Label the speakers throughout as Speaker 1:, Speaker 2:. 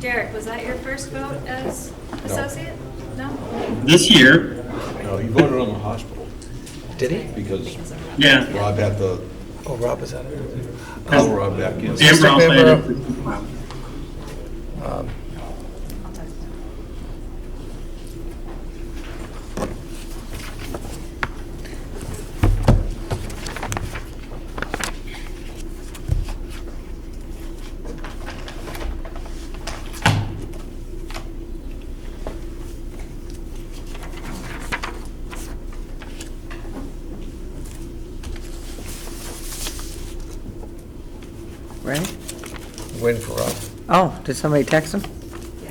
Speaker 1: Derek, was that your first vote as associate? No?
Speaker 2: This year,
Speaker 3: No, he voted on the hospital
Speaker 4: Did he?
Speaker 3: because
Speaker 2: yeah.
Speaker 3: Rob had the,
Speaker 4: Oh, Rob is on it.
Speaker 3: call Rob back in.
Speaker 2: Sam Brown played
Speaker 4: Member-
Speaker 2: it.
Speaker 1: I'll talk to him.
Speaker 5: Ready?
Speaker 4: Waiting for Rob.
Speaker 5: Oh, did somebody text him?
Speaker 1: Yeah.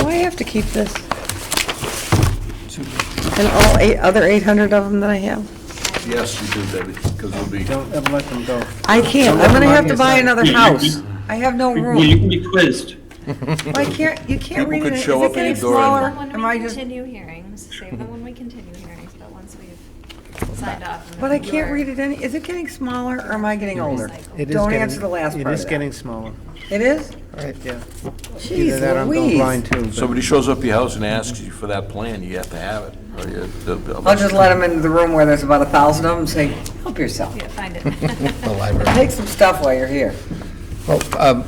Speaker 5: Do I have to keep this? And all eight, other 800 of them that I have?
Speaker 3: Yes, you did that because it'll be,
Speaker 6: Don't ever let them go.
Speaker 5: I can't, I'm gonna have to buy another
Speaker 2: Yeah, you-
Speaker 5: house. I have no
Speaker 2: Well, you
Speaker 5: room.
Speaker 2: can be quizzed.
Speaker 5: I can't, you can't
Speaker 3: People
Speaker 5: read
Speaker 3: could
Speaker 5: it, is
Speaker 3: show
Speaker 5: it
Speaker 3: up at
Speaker 5: getting
Speaker 3: your door and-
Speaker 5: smaller?
Speaker 1: Save them
Speaker 5: Am
Speaker 1: when
Speaker 5: I
Speaker 1: we
Speaker 5: just,
Speaker 1: continue hearings, save them when we continue hearings, but once we've signed off. and
Speaker 5: but I
Speaker 1: then
Speaker 5: can't
Speaker 1: you're-
Speaker 5: read it any, is it getting smaller or am I getting older?
Speaker 1: Recycle.
Speaker 6: It is
Speaker 5: Don't
Speaker 6: getting-
Speaker 5: answer the last part
Speaker 6: It
Speaker 5: of
Speaker 6: is
Speaker 5: that.
Speaker 6: getting smaller.
Speaker 5: It is?
Speaker 6: Right, yeah. Either that or
Speaker 5: Jeez
Speaker 6: I'm going blind
Speaker 5: Louise.
Speaker 6: too. but-
Speaker 3: somebody shows up at your house and asks you for that plan, you have to have it. or you- they'll- they'll-
Speaker 5: I'll just let them into the room where there's about a thousand of them and say, help yourself.
Speaker 1: Yeah, find it.
Speaker 4: The library.
Speaker 5: Take some stuff while you're here.
Speaker 4: Well, um,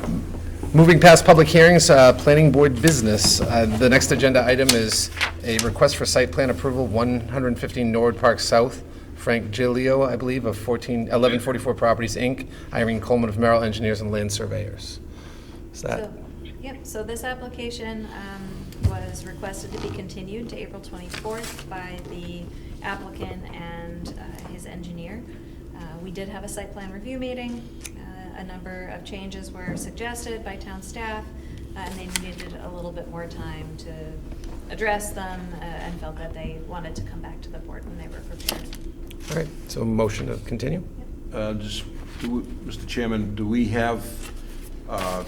Speaker 4: Moving past public hearings, uh, planning board business. Uh, The next agenda item is a request for site plan approval, 115 Norwood Park South. Frank Giglio, I believe, of 14, 1144 Properties, Inc., Irene Coleman of Merrill Engineers and Land Surveyors. Is that,
Speaker 1: So- Yep, so this application um, was requested to be continued to April 24th by the applicant and uh, his engineer. Uh, We did have a site plan review meeting. Uh, A number of changes were suggested by town staff, uh, and they needed a little bit more time to address them uh, and felt that they wanted to come back to the board when they were prepared.
Speaker 4: all right, so motion to continue?
Speaker 3: Uh, Just, do we- Mr. Chairman, do we have uh,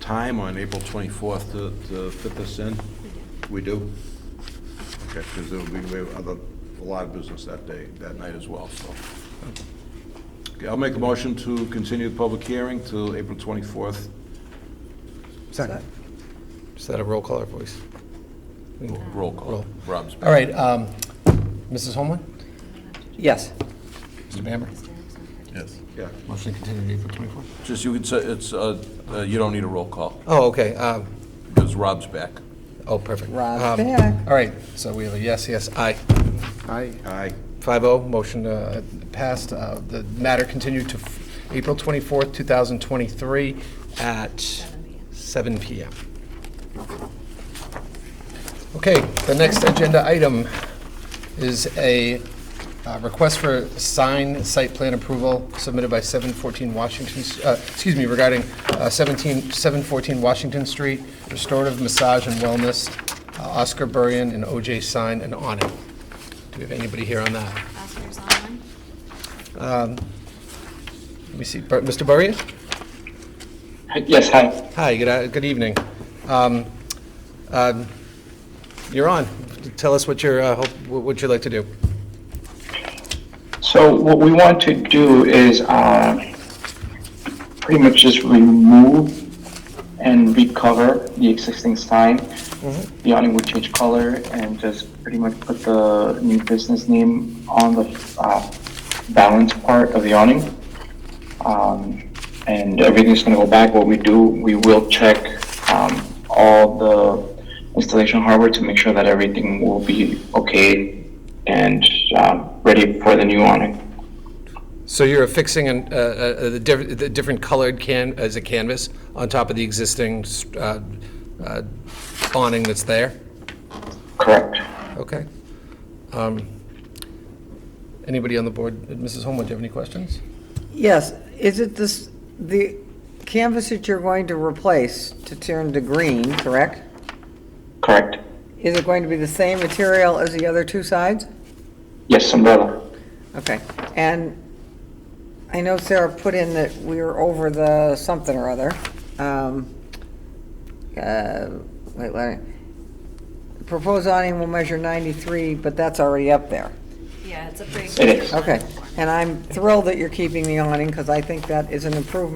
Speaker 3: time on April 24th to to fit this in? We do? Okay, because there will be we have other- a lot of business that day, that night as well, so. Okay, I'll make a motion to continue the public hearing till April 24th.
Speaker 4: Second. Is that a roll call or voice?
Speaker 3: Roll call.
Speaker 4: Roll.
Speaker 3: Rob's back.
Speaker 4: All right, um, Mrs. Holman?
Speaker 5: Yes.
Speaker 4: Mr. Bamber?
Speaker 3: Yes. Yeah,
Speaker 4: Motion to continue April 24th.
Speaker 3: just you could say, it's, uh, uh, you don't need a roll call,
Speaker 4: Oh, okay. um,
Speaker 3: because Rob's back.
Speaker 4: Oh, perfect.
Speaker 5: Rob's
Speaker 4: Um,
Speaker 5: back.
Speaker 4: All right, so we have a yes, yes, aye.
Speaker 6: I,
Speaker 3: Aye.
Speaker 4: 5-0, motion uh, passed. Uh, The matter continued to f- April 24th, 2023 at seven PM. Okay, the next agenda item is a uh, request for sign site plan approval submitted by 714 Washington, uh, excuse me, regarding uh, 17, 714 Washington Street, restorative massage and wellness, uh, Oscar Buryan and OJ Sign and awning. Do we have anybody here on that?
Speaker 1: Oscar's online?
Speaker 4: Um, Let me see, Bur- Mr. Buryan?
Speaker 2: Yes, hi.
Speaker 4: Hi, good, good evening. Um, um, You're on. Tell us what you're, uh, hope- what you'd like to do.
Speaker 7: So what we want to do is uh, pretty much just remove and recover the existing sign. The awning would change color and just pretty much put the new business name on the uh, balance part of the awning. Um, And everything's going to go back. What we do, we will check um, all the installation hardware to make sure that everything will be okay and um, ready for the new awning.
Speaker 4: So you're affixing an- uh, uh, the diff- the different colored can, as a canvas on top of the existing uh, uh, awning that's there?
Speaker 7: Correct.
Speaker 4: Okay. Um, Anybody on the board, Mrs. Holmwood, do you have any questions?
Speaker 5: Yes, is it this, the canvas that you're going to replace to turn to green, correct?
Speaker 7: Correct.
Speaker 5: Is it going to be the same material as the other two sides?
Speaker 7: Yes, umbrella.
Speaker 5: Okay, and I know Sarah put in that we were over the something or other. Um, uh, Wait, let me, the proposed awning will measure 93, but that's already up there.
Speaker 1: Yeah, it's a pretty.
Speaker 7: It is.
Speaker 5: Okay, and I'm thrilled that you're keeping the awning, because I think that is an improvement